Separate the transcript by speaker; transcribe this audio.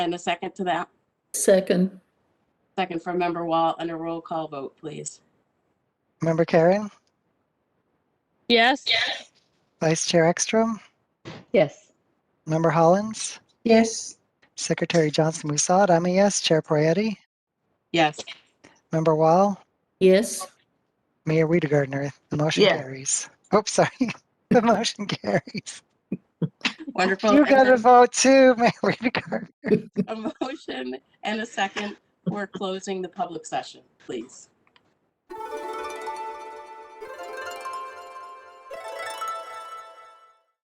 Speaker 1: And a second to that?
Speaker 2: Second,
Speaker 1: Second from Member Wall and a roll call vote, please.
Speaker 3: Member Karen,
Speaker 4: Yes.
Speaker 3: Vice Chair Ekstrom,
Speaker 5: Yes.
Speaker 3: Member Hollins,
Speaker 5: Yes.
Speaker 3: Secretary Johnson Musad, I'm a yes. Chair Poyetty,
Speaker 1: Yes,
Speaker 3: Member Wall,
Speaker 2: yes,
Speaker 3: Mayor Weidergartner, the motion
Speaker 5: Yeah.
Speaker 3: carries. Oops, sorry. The motion carries.
Speaker 1: wonderful.
Speaker 3: You got
Speaker 1: And
Speaker 3: a vote too, Mayor Weidergartner.
Speaker 1: A motion and a second. We're closing the public session, please.